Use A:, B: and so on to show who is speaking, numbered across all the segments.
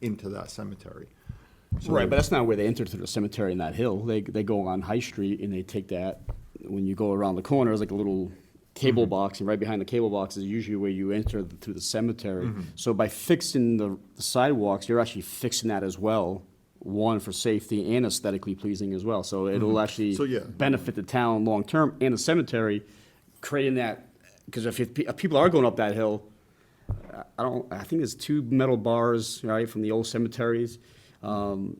A: into that cemetery. So
B: Right,
A: they-
B: but that's not where they enter through the cemetery in that hill. They, they go on High Street and they take that, when you go around the corner, it's like a little cable
A: Mm-hmm.
B: box, and right behind the cable box is usually where you enter the- through the cemetery.
A: Mm-hmm.
B: So by fixing the the sidewalks, you're actually fixing that as well, one, for safety and aesthetically pleasing as well. So it'll actually
A: Mm-hmm. So, yeah.
B: benefit the town long-term and the cemetery, creating that, because if, you- if people are going up that hill, I- I don't, I think there's two metal bars, right, from the old cemeteries. Um,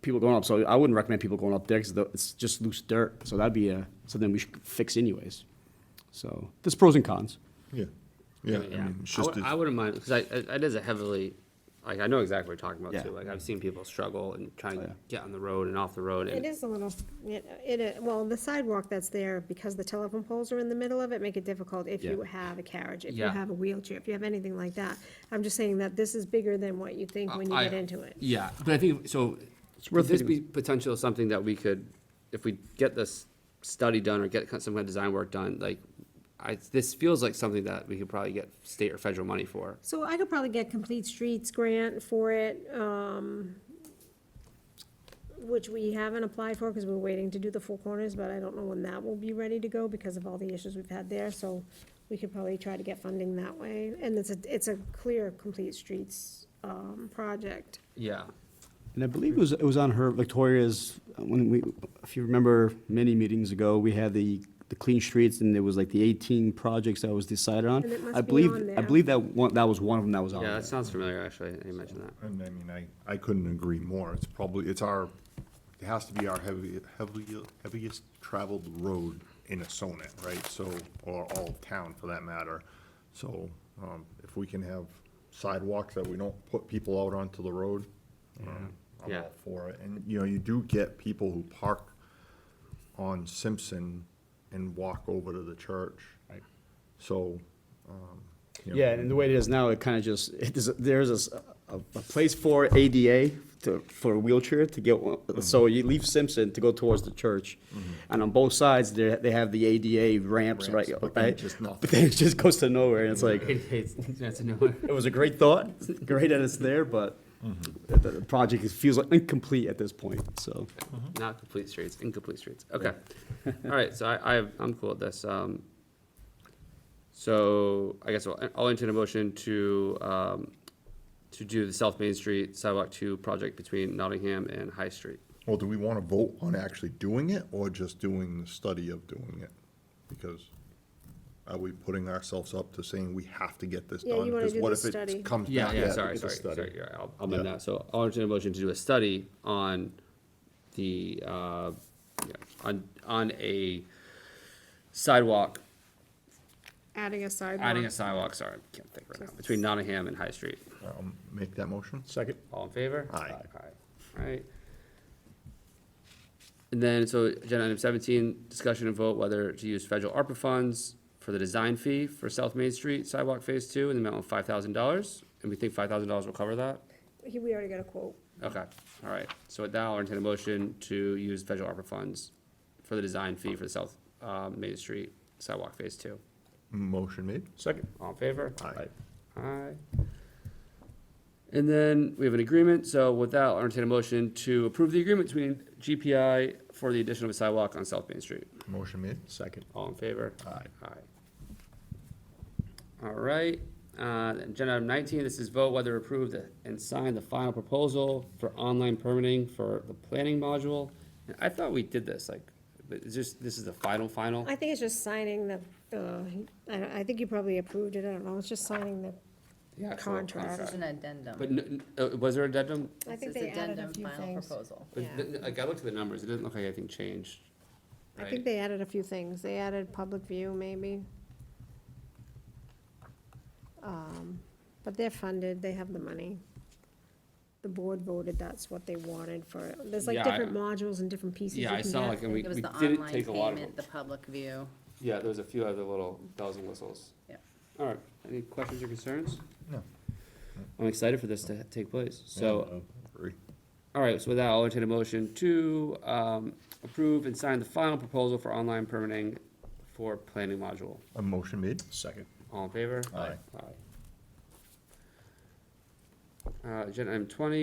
B: people going up, so I wouldn't recommend people going up there because it's just loose dirt. So that'd be a, something we should fix anyways. So there's pros and cons.
A: Yeah, yeah, I
C: Yeah,
A: mean, it's
C: I,
A: just,
C: would, I wouldn't mind because I, I it is a heavily, like I know exactly what you're talking about
B: Yeah.
C: too. Like I've seen people struggle and trying
B: Oh, yeah.
C: to get on the road and off the road.
D: It
C: And
D: is a little, it, it, uh, well, the sidewalk that's there, because the telephone poles are in the middle of it, make it difficult if you
B: Yeah.
D: have a carriage, if you
C: Yeah.
D: have a wheelchair, if you have anything like that. I'm just saying that this is bigger than what you think when you
C: Uh, I-
D: get into it.
C: Yeah, but I think so. Could
B: worth
C: this be
B: thinking.
C: potential something that we could, if we get this study done or get some kind of design work done, like I, this feels like something that we could probably get state or federal money for.
D: So I could probably get Complete Streets grant for it, um, which we haven't applied for because we're waiting to do the four corners, but I don't know when that will be ready to go because of all the issues we've had there, so we could probably try to get funding that way. And it's a, it's a clear Complete Streets, um, project.
C: Yeah.
B: And I believe it was, it was on her, Victoria's, uh, when we, if you remember many meetings ago, we had the, the clean streets and there was like the 18 projects that was decided on.
D: And it must
B: I
D: be
B: believe,
D: on
B: I
D: there.
B: believe that one, that was one of them that was on
C: Yeah,
B: there.
C: that sounds familiar. Actually, you mentioned that.
A: and I mean, I, I couldn't agree more. It's probably, it's our, it has to be our heavy, heavy, heaviest traveled road in a sonnet, right? So, or all of town for that matter. So, um, if we can have sidewalks that we don't put people out onto the road, um, I'm
C: Yeah.
A: all for it. And, you know, you do get people who park on Simpson and walk over to the church. Right. So, um, you know,
B: Yeah, and the way it is now, it kind of just, it is, there's a, s- a- a place for ADA to, for a wheelchair to get, one.
A: Mm-hmm.
B: so you leave Simpson to go towards the church. And on both sides, they, they have the ADA ramps, right?
A: Ramps, but then
B: right?
A: just nothing.
B: But then it just goes to nowhere, and it's like,
C: It's, that's a no.
B: it was a great thought, it's great that it's there, but
A: Mm-hmm.
B: the, the project is- feels like incomplete at this point, so.
C: Not complete streets, incomplete streets. Okay. All right, so I, I, I'm cool with this. Um, so I guess I'll, I'll entertain a motion to, um, to do the South Main Street sidewalk two project between Nottingham and High Street.
A: Well, do we want to vote on actually doing it or just doing the study of doing it? Because are we putting ourselves up to saying we have to get this
D: Yeah,
A: done?
D: you wanna
A: Because
D: do
A: what
D: the
A: if it
D: study.
A: Comes back.
C: Yeah,
A: that
C: sorry,
A: it's a
C: sorry,
A: study?
C: sorry, yeah, I'll, I'll amend
A: Yeah.
C: that. So I'll entertain a motion to do a study on the, uh, yeah, on, on a sidewalk,
D: Adding a sidewalk.
C: adding a sidewalk, sorry, I can't think right now, between Nottingham and High Street.
A: I'll Um, Make that motion?
B: Second.
C: All in favor?
A: Aye.
C: Aye. Alright. And then, so agenda item seventeen, discussion and vote whether to use federal ARPA funds for the design fee for South Main Street sidewalk phase two in the amount of five thousand dollars. And we think five thousand dollars will cover that?
D: He- We already got a quote.
C: Okay, alright. So with that, I'll entertain a motion to use federal ARPA funds for the design fee for the South, uh, Main Street sidewalk phase two.
A: Motion made?
B: Second.
C: All in favor?
A: Aye.
C: Aye. And then we have an agreement, so with that, I'll entertain a motion to approve the agreement between GPI for the addition of a sidewalk on South Main Street.
A: Motion made?
B: Second.
C: All in favor?
A: Aye.
C: Aye. All right, uh, agenda item nineteen, this is vote whether approve the- and sign the final proposal for online permitting for the planning module. And I thought we did this, like, but it's just, this is the final, final?
D: I think it's just signing the, uh, I, don't- I think you probably approved it, I don't know, it's just signing the,
C: The actual
D: Contract.
E: This is an addendum.
C: But, n- n- uh, was there a addendum?
D: I think
E: This is
D: they added a
E: addendum
D: few
E: final
D: things.
E: proposal.
C: But
D: Yeah.
C: th- th- like I looked at the numbers, it doesn't look like anything changed.
D: I
C: right?
D: think they added a few things, they added public view maybe. Um, But they're funded, they have the money. The board voted that's what they wanted for, there's like
C: Yeah, I-
D: different modules and different pieces you
C: Yeah, I
D: can
C: saw
D: get.
C: like, and we,
E: It was
C: we
E: the
C: didn't
E: online
C: take a lot of
E: payment, the
C: them.
E: public view.
C: Yeah, there was a few other little bells and whistles.
E: Yeah.
C: All right, any questions or concerns?
A: No.
C: I'm excited for this to take place.
A: uh,
C: So,
A: Agree.
C: all right, so with that, I'll entertain a motion to, um, approve and sign the final proposal for online permitting for planning module.
A: A motion made?
B: Second.
C: All in favor?
A: Aye.
C: Aye. Uh, agenda item twenty,